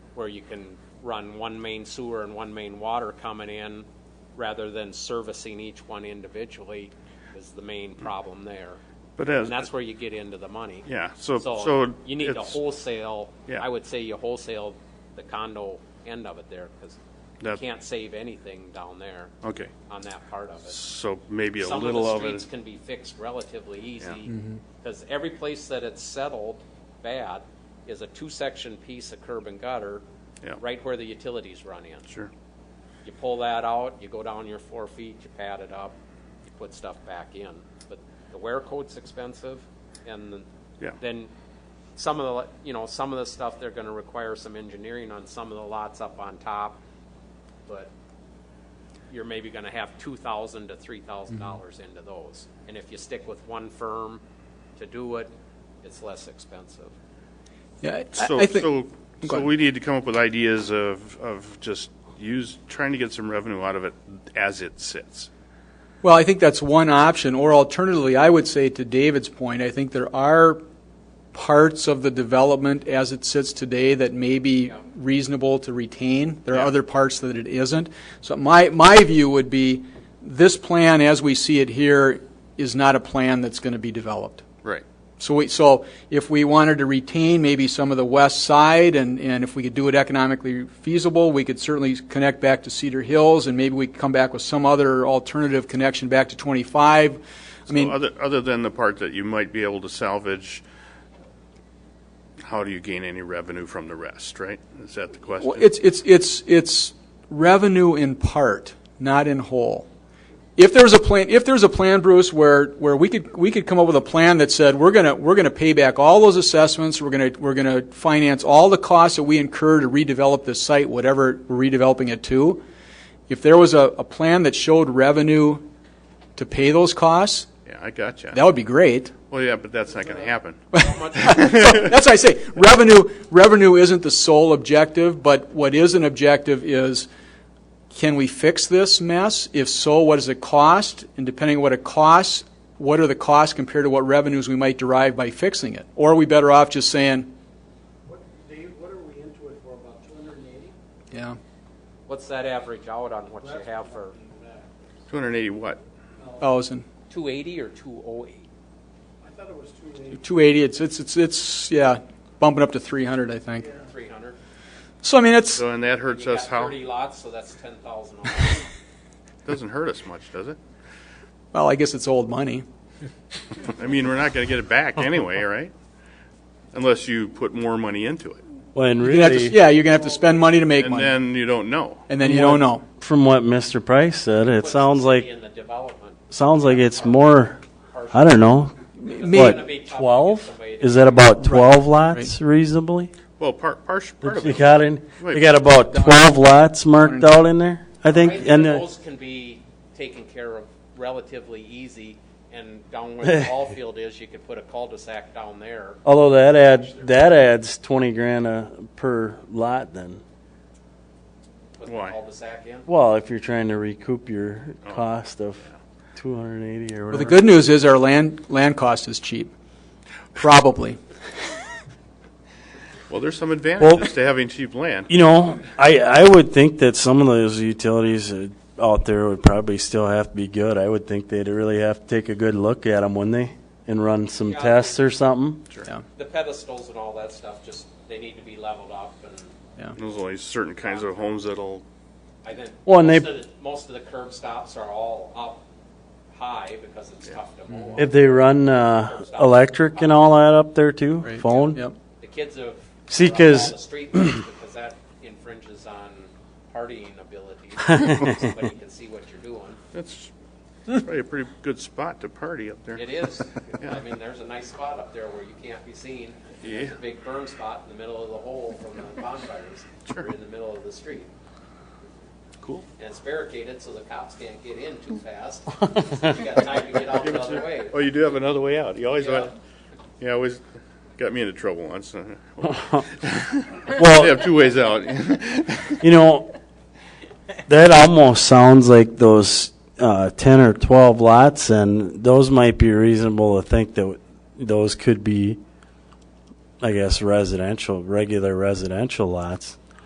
where you can run one main sewer and one main water coming in rather than servicing each one individually is the main problem there. But as, And that's where you get into the money. yeah, so, so. So you need to it's- wholesale, Yeah. I would say you wholesale the condo end of it there because you That- can't save anything down there Okay, on that part of it. so maybe a Some little of of the streets it, can be fixed relatively easy because every place that it's settled bad is a two-section piece of curb and gutter Yeah. right where the utilities run in. sure, You pull that out, you go down your four feet, you pad it up, you put stuff back in. But the wear coat's expensive, and the- Yeah. then some of the, li- you know, some of the stuff, they're gonna require some engineering on some of the lots up on top, but you're maybe gonna have two thousand to three thousand dollars into those. And if you stick with one firm to do it, it's less expensive. Yeah, I, so, I think. so, Go so ahead. we need to come up with ideas of, of just use, trying to get some revenue out of it as it sits. Well, I think that's one option, or alternatively, I would say to David's point, I think there are parts of the development as it sits today that may be reasonable to retain. There are other parts that it isn't. So my, my view would be, this plan as we see it here is not a plan that's going to be developed. Right. So we, so if we wanted to retain maybe some of the west side and, and if we could do it economically feasible, we could certainly connect back to Cedar Hills and maybe we could come back with some other alternative connection back to 25. I So mean, other, other than the part that you might be able to salvage, how do you gain any revenue from the rest, right? Is that the well, question? it's, it's, it's, it's revenue in part, not in whole. If there's a plan, if there's a plan, Bruce, where, where we could, we could come up with a plan that said, we're gonna, we're gonna pay back all those assessments, we're gonna, we're gonna finance all the costs that we incur to redevelop this site, whatever we're redeveloping it to. If there was a, a plan that showed revenue to pay those costs, Yeah, I got you. that would be great. Well, yeah, but that's not going to happen. That's what I say. Revenue, revenue isn't the sole objective, but what is an objective is, can we fix this mess? If so, what does it cost? And depending on what it costs, what are the costs compared to what revenues we might derive by fixing it? Or are we better off just saying, What, Dave, what are we into it for, about two hundred and eighty? yeah, What's that average out on what you have for 280 what? thousand, two eighty or two oh eight? I thought it was two eighty. two eighty, it's, it's, it's, it's, yeah, bumping up to three hundred, I think. Three hundred. So, I mean, it's, So, and that hurts You got us how? thirty lots, so that's ten thousand. Doesn't hurt us much, does it? well, I guess it's old money. I mean, we're not going to get it back anyway, right? Unless you put more money into it. When You're gonna have to- really, Yeah, you're gonna have to spend money to make And money, then you don't know. and then you don't know. from what Mr. Price said, it sounds like In the development. sounds like it's more. I don't know. Gonna be tough What to get twelve? somebody to- Is that about twelve lots reasonably? Well, part, part, part of You it. got in. Wait. You got about twelve lots marked out in there. I think, I think and uh, those can be taken care of relatively easy, and down where the ball field is, you could put a cul-de-sac down there. although that add that adds twenty grand uh, per lot then. Put the Why? cul-de-sac in. Well, if you're trying to recoup your Oh. cost of two hundred and eighty or Well, whatever. the good news is our land, land cost is cheap, probably. Well, there's some advantages to having cheap land. You know, I, I would think that some of those utilities uh, out there would probably still have to be good. I would think they'd really have to take a good look at them, wouldn't they? And run some Yeah. tests or something. The pedestals and all that stuff, just, they need to be leveled up, and There's only certain kinds of homes that'll, I think Well, and most they- of the- most of the curb stops are all up high because it's tough to mow. If they run uh, electric and all that up there too, phone. Yep. The kids have. See, run all 'cause- The street lights because that infringes on partying ability. Somebody can see what you're doing. that's probably a pretty good spot to party up there. It is. I mean, there's a nice spot up there where you can't be seen. There's a Yeah. big burn spot in the middle of the hole from the bonfires. We're in the middle of the street. Cool. And it's barricaded so the cops can't get in too fast. So you got time to get out the other way. Oh, you do have another way out. You always, Yeah. want- you always got me into trouble once. They Well, have two ways out. you know, that almost sounds like those uh, ten or twelve lots, and those might be reasonable to think that those could be, I guess, residential, regular residential lots.